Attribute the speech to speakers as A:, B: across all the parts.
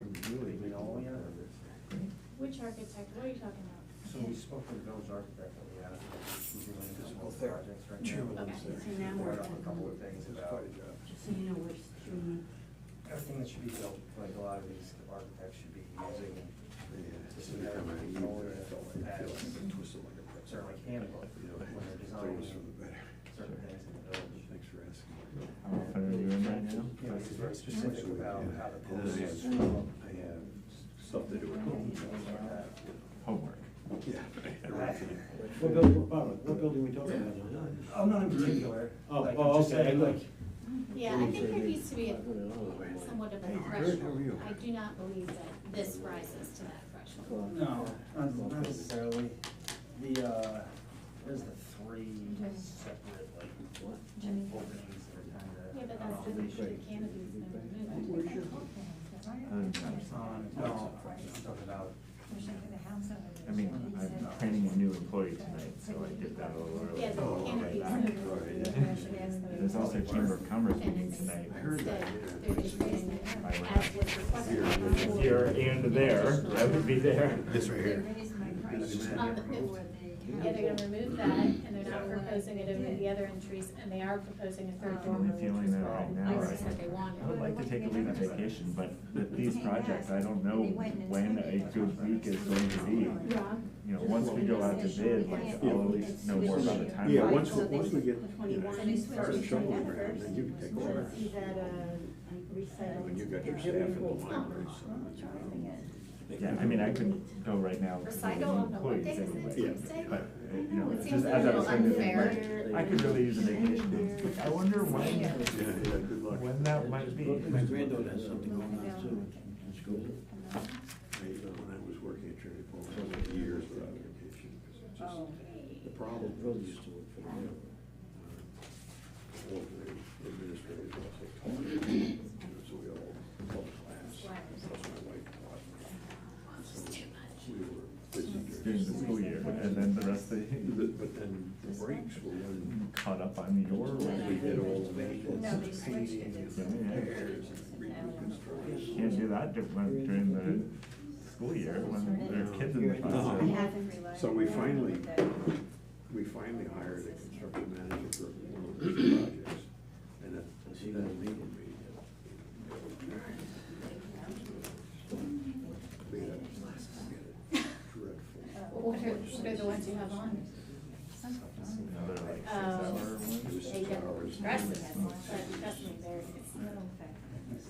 A: Oh,
B: Which architect, what are you talking about?
A: So we spoke with the village architect that we had, who's doing physical
C: Physical therapy.
A: projects right now.
C: Two of
B: Okay,
C: those
B: so
C: things.
B: now we're
A: Working on a couple of
C: This
A: things
C: is
A: about
C: quite a job.
D: Just so you know which tree,
A: everything that should be built, like a lot of these architects should be using
C: This is kind of a need, I felt like, I feel like I'm twisted like a pretzel.
A: sort of like handbook
C: You know,
A: when they're designing
C: things for the better.
A: certain things in the village.
C: Thanks for asking.
E: How far are you in right now?
A: You know, he's very specific
C: So,
A: about
C: yeah.
A: how the
C: And
A: posts
C: then I
A: should
C: have-
A: go.
C: I have stuff to do at home.
E: Homework.
C: Yeah.
F: What building, Barbara, what building we talking about now?
A: Oh, not in particular.
F: Oh,
A: like,
F: oh,
A: just
F: okay,
A: saying,
F: look.
A: like,
B: Yeah, I think there needs to be a- somewhat of a
C: Hey, Bert, how are
B: threshold.
C: you?
B: I do not believe that this rises to that threshold.
A: No, not not necessarily. The, uh, there's the three separate, like, openings
B: Yeah,
A: that are
B: but
A: kind
B: that's
A: of.
B: the issue, the canopy's never
D: where's
B: moved.
D: your,
E: I'm,
A: Um, no, I'm talking about,
E: I mean, I'm training a new employee tonight, so I did that a little early.
B: Yeah, the
C: Oh,
B: canopy's
C: right,
B: never
C: right,
B: moved.
C: yeah.
E: There's also Chamber of Commerce meeting
B: And
E: tonight.
C: I heard
B: instead,
C: that, yeah.
B: they're just raising it
E: By right.
B: as was requested.
E: If you're and there, I would be there.
C: It's right here.
B: Um, Yeah, they're gonna remove that, and they're not proposing it over the other entries, and they are proposing a third
E: I'm
B: dormer,
E: only
B: which
E: feeling
B: is
E: that right now,
B: what ISIS
E: right?
B: said they wanted.
E: I would like to take a week of vacation, but with these projects, I don't know when a good week is going to be.
B: Rob?
E: You know, once we go out to bid, like, I'll at least know more about the timeline.
C: Yeah, once, we- once we get, you know,
B: Twenty-one is
C: start
B: first.
C: shoveling around, then you can take over.
D: let's see that, uh, like recital.
C: When you got your staff in the library, so.
E: Yeah, I mean, I couldn't go right now because of the
B: Recital on the what
E: employees
B: day is it,
E: anyway.
B: Tuesday?
E: But, uh, you know,
B: It
E: just
B: seems a
E: as I
B: little
E: was saying to the
B: unfair.
E: Mike, I could really use a vacation. I wonder when,
C: Yeah, yeah, good luck.
E: when that might be.
F: My granddaughter has something going on too, in school.
C: I, you know, when I was working at Trinity Falls, I went years without vacation. because it's just- The
B: Oh.
F: Well,
C: problem
F: Brody
C: is,
F: used to work for the railroad.
C: uh, all of the administrators are also taught, you know, so we all taught class. Plus my wife taught. So We were busy
E: During
C: during
E: the school year, and then the rest of the,
C: But but then the breaks were when
E: caught up on your
C: we
E: work.
C: did all the maintenance.
D: No, they
C: and
D: switched it.
C: painting and
D: It's-
C: repairs and reconstruction.
E: Can't do that di- when- during the school year when there are kids in the
B: Uh-huh.
D: We
E: classroom.
D: haven't relied
C: So we
D: on
C: finally-
D: that.
C: We finally hired a construction manager for one of those projects, and it, and that legal meeting. We had, we had a dreadful,
B: What are, what are the ones you have on?
E: Another like six
B: Oh.
E: hour
C: it
E: one.
C: was
B: They
C: six hours.
B: get dressed in them, but trust me, they're, it's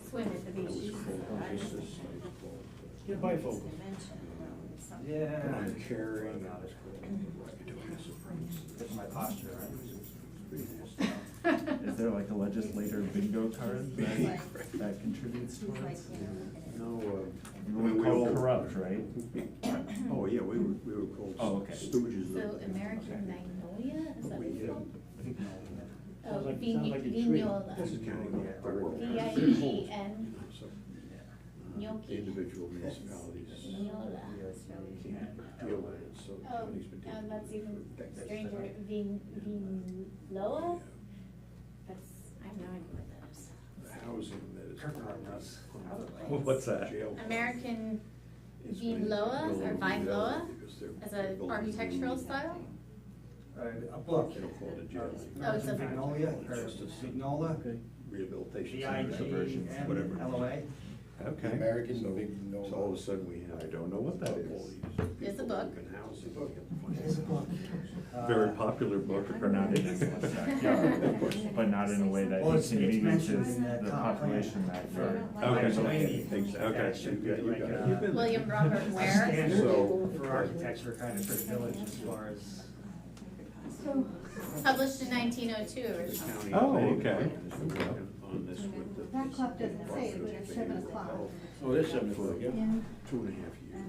B: swim at the
C: It was
B: beach.
C: cold, it was just like cold.
F: Get bifocal.
A: yeah.
C: And I'm carrying
A: About
C: out
A: it.
C: his cold.
A: That's Mm-hmm. my posture, right?
E: Is there like a legislator bingo card that, that contributes towards?
C: No, uh.
E: We
C: all-
E: call corrupt, right?
C: Oh, yeah, we were, we were called
E: Oh, okay.
C: stooges. of-
B: So American Magnolia, is that what it's called?
F: Sounds
B: Oh,
F: like- sounds like a
B: Vign-
F: tree.
C: This is
B: Vignola.
C: county, yeah. the world.
B: V I N G N,
C: So, uh,
B: Gnocchi.
C: The individual municipalities
B: Vignola.
C: can't deal with it, so the
B: Oh,
C: county's been
B: now
C: taking.
B: that's even
C: That's-
B: stranger, Vin, Vinloa? That's, I have no idea what that is.
C: The housing that is.
A: Kirkland House.
E: What's that?
C: Jail.
B: American
C: is
B: Vin
C: being
B: Loa or
C: built
B: Vine Loa
C: because they're
B: as a
C: building
B: architectural
C: new-
B: style?
A: Uh, A book.
C: They don't call it a jail.
B: Oh, it's a-
A: Magnolia, or Signola,
C: Rehabilitation.
A: V I
C: centers,
A: G
C: diversions,
A: N
C: whatever.
A: L O A.
C: Okay.
G: American
C: So-
G: Big No-
C: So all of a sudden we have.
G: I don't know what that is.
B: It's a book.
C: It's a book.
A: Uh,
G: Very popular book.
E: Or not in his backyard, of course, but not in a way that
A: Well, it's- it's
E: inconveniences
A: mentioned in
E: the
A: the comp plan.
E: population that you're.
G: Okay.
A: Okay.
C: You got- you got-
A: You've been-
B: William Robert Ware?
A: Standard
C: So-
A: for architecture kind of for the village as far as.
B: Published in nineteen oh two originally.
G: Oh, okay.
C: On this with the.
D: That clock doesn't say it, but it's seven o'clock.
F: Oh, it is seven o'clock,
C: For
F: yeah.
C: Two and a half years. And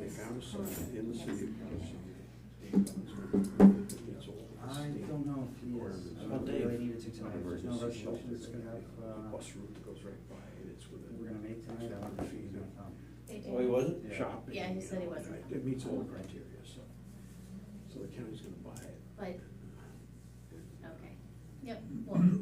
C: They found a site in the city of Carson. It's all-
A: I don't know if he is, I don't really need it to tonight, there's no resolutions that we
C: A
A: have, uh,
C: Bus route that goes right by it, it's with a.
A: we're gonna make tonight, I don't know if he's gonna come.
B: They did.
F: Oh, he wasn't?
A: Yeah.
C: Shopping.
B: Yeah, he said
C: you
B: he
C: know,
B: wasn't
C: and
B: coming.
C: It meets all the criteria, so, so the county's gonna buy it.
B: But, okay, yep, well,